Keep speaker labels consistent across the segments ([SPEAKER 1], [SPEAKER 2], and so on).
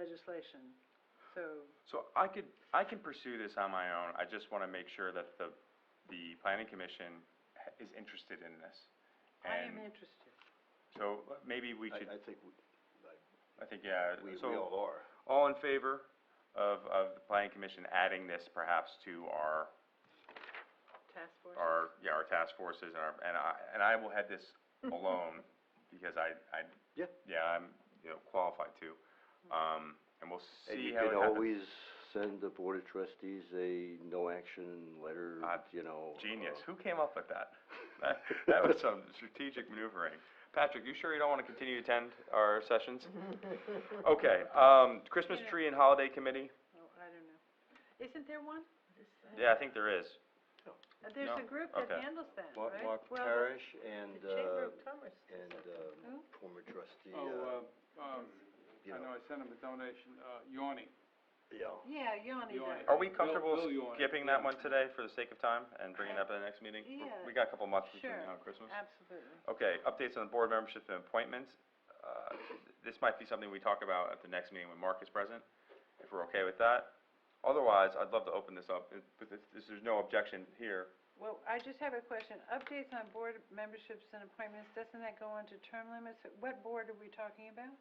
[SPEAKER 1] legislation, so,
[SPEAKER 2] So I could, I can pursue this on my own, I just wanna make sure that the, the planning commission h- is interested in this.
[SPEAKER 1] I am
[SPEAKER 2] And
[SPEAKER 1] interested.
[SPEAKER 2] so uh, maybe we should,
[SPEAKER 3] I, I think we,
[SPEAKER 2] I think, yeah,
[SPEAKER 3] we, we
[SPEAKER 2] so,
[SPEAKER 3] all are.
[SPEAKER 2] all in favor of, of the planning commission adding this perhaps to our,
[SPEAKER 1] Task force?
[SPEAKER 2] our, yeah, our task forces and our, and I, and I will head this alone, because I, I.
[SPEAKER 3] Yeah.
[SPEAKER 2] Yeah, I'm, you know, qualified to,
[SPEAKER 1] Mm-hmm.
[SPEAKER 2] um, and we'll
[SPEAKER 3] And
[SPEAKER 2] see
[SPEAKER 3] you
[SPEAKER 2] how it
[SPEAKER 3] can
[SPEAKER 2] happens.
[SPEAKER 3] always send the board of trustees a no-action letter,
[SPEAKER 2] Ah,
[SPEAKER 3] you know.
[SPEAKER 2] Genius,
[SPEAKER 3] uh,
[SPEAKER 2] who came up with that? That, that was some strategic maneuvering. Patrick, you sure you don't wanna continue to attend our sessions? Okay, um, Christmas
[SPEAKER 1] Yeah.
[SPEAKER 2] tree and holiday committee,
[SPEAKER 1] Oh, I don't know. Isn't there one?
[SPEAKER 2] yeah, I think there is.
[SPEAKER 1] Uh, There's a
[SPEAKER 2] No,
[SPEAKER 1] group that
[SPEAKER 2] okay.
[SPEAKER 1] handles that,
[SPEAKER 3] Mark,
[SPEAKER 1] right?
[SPEAKER 3] Mark
[SPEAKER 1] Well, the-
[SPEAKER 3] Parrish and,
[SPEAKER 1] The Chamber
[SPEAKER 3] uh,
[SPEAKER 1] of Commerce. does
[SPEAKER 3] and,
[SPEAKER 1] that. Who?
[SPEAKER 3] um, former trustee, uh,
[SPEAKER 4] Oh, uh, um,
[SPEAKER 3] you
[SPEAKER 4] I
[SPEAKER 3] know,
[SPEAKER 4] know, I sent him a donation, uh, Yawny.
[SPEAKER 3] yeah.
[SPEAKER 1] Yeah, Yoni
[SPEAKER 4] Yoni.
[SPEAKER 1] does.
[SPEAKER 2] Are we
[SPEAKER 4] Bill-
[SPEAKER 2] comfortable
[SPEAKER 4] Bill, you want it?
[SPEAKER 2] skipping that
[SPEAKER 4] Yeah.
[SPEAKER 2] one today for the sake of time and bringing it up at the next meeting?
[SPEAKER 1] Yeah.
[SPEAKER 2] We got a couple months between
[SPEAKER 1] Sure.
[SPEAKER 2] now and Christmas.
[SPEAKER 1] Absolutely.
[SPEAKER 2] Okay, updates on board membership and appointments. Uh, this might be something we talk about at the next meeting when Mark is present, if we're okay with that. Otherwise, I'd love to open this up, if, if if there's no objection here.
[SPEAKER 1] Well, I just have a question. Updates on board memberships and appointments, doesn't that go on to term limits? What board are we talking about?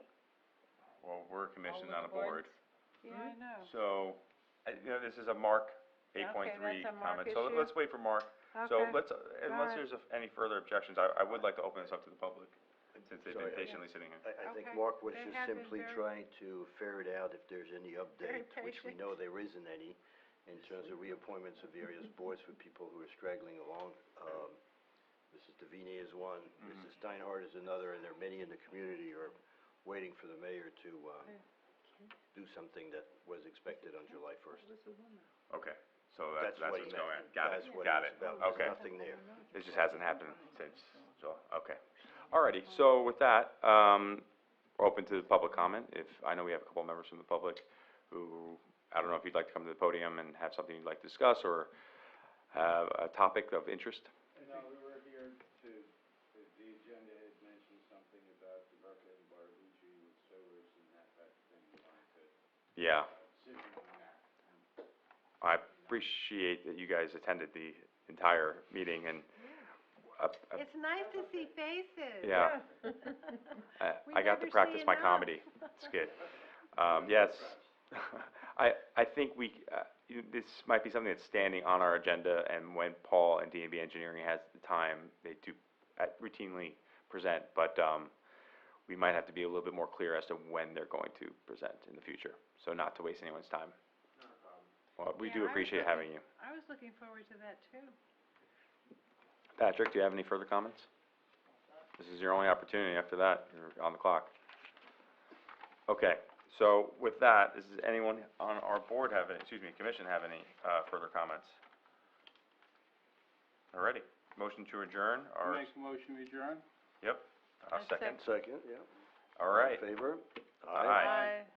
[SPEAKER 2] Well, we're commissioned on a board,
[SPEAKER 1] Yeah,
[SPEAKER 2] Hmm?
[SPEAKER 1] I know.
[SPEAKER 2] so, uh, you know, this is a Mark eight point three
[SPEAKER 1] Oh. that's a Mark
[SPEAKER 2] comment, so
[SPEAKER 1] issue.
[SPEAKER 2] let's wait for Mark.
[SPEAKER 1] Okay.
[SPEAKER 2] So let's, uh, unless
[SPEAKER 1] right.
[SPEAKER 2] there's a- any further objections, I, I would like to open this up to the public, since they've
[SPEAKER 3] Sorry,
[SPEAKER 2] been patiently sitting here.
[SPEAKER 3] I, I think
[SPEAKER 1] Okay.
[SPEAKER 3] Mark was
[SPEAKER 1] They
[SPEAKER 3] just
[SPEAKER 1] have been
[SPEAKER 3] simply
[SPEAKER 1] very-
[SPEAKER 3] trying to ferret out if there's any
[SPEAKER 1] Very
[SPEAKER 3] update, which we
[SPEAKER 1] patient.
[SPEAKER 3] know there isn't any, in terms of reappointments of various boards for people who are straggling along. Um, Mrs. Davini is one,
[SPEAKER 2] Mhm.
[SPEAKER 3] Mrs. Steinhardt is another, and there are many in the community who are waiting for the mayor to, uh,
[SPEAKER 1] Yeah.
[SPEAKER 3] do something that was expected on July first.
[SPEAKER 2] Okay, so that's, that's
[SPEAKER 3] what he
[SPEAKER 2] what's going on,
[SPEAKER 3] meant.
[SPEAKER 2] got it,
[SPEAKER 3] That's what
[SPEAKER 2] got
[SPEAKER 3] was
[SPEAKER 2] it,
[SPEAKER 3] about.
[SPEAKER 2] okay.
[SPEAKER 3] There's nothing there.
[SPEAKER 2] It just hasn't happened since, so, okay. Alrighty, so with that, um, we're open to the public comment, if, I know we have a couple members from the public who, I don't know if you'd like to come to the podium and have something you'd like to discuss, or have a topic of interest.
[SPEAKER 4] No, we were here to, the agenda had mentioned something about the Burkett and Barbucci with sewers and that type of thing, we wanted to
[SPEAKER 2] Yeah,
[SPEAKER 4] sit on that.
[SPEAKER 2] I appreciate that you guys attended the entire meeting and, uh, uh,
[SPEAKER 1] It's nice to see faces.
[SPEAKER 2] Yeah. I,
[SPEAKER 1] We
[SPEAKER 2] I
[SPEAKER 1] never
[SPEAKER 2] got to
[SPEAKER 1] see
[SPEAKER 2] practice my
[SPEAKER 1] enough.
[SPEAKER 2] comedy, it's good. Um, yes, I, I think we, uh, you- this might be something that's standing on our agenda, and when Paul and DNB Engineering has the time, they do uh, routinely present, but, um, we might have to be a little bit more clear as to when they're going to present in the future, so not to waste anyone's time. Well, we
[SPEAKER 1] Yeah,
[SPEAKER 2] do
[SPEAKER 1] I
[SPEAKER 2] appreciate
[SPEAKER 1] agree.
[SPEAKER 2] having you.
[SPEAKER 1] I was looking forward to that too.
[SPEAKER 2] Patrick, do you have any further comments? This is your only opportunity. After that, you're on the clock. Okay, so with that, does anyone on our board have any, excuse me, commission have any, uh, further comments? Alrighty, motion to adjourn, or,
[SPEAKER 4] Make a motion to adjourn?
[SPEAKER 2] yep, a
[SPEAKER 1] I'll
[SPEAKER 2] second,
[SPEAKER 1] sec-
[SPEAKER 3] Second, yeah. All in
[SPEAKER 2] alright.
[SPEAKER 3] Favor?
[SPEAKER 2] Aye.
[SPEAKER 1] Bye.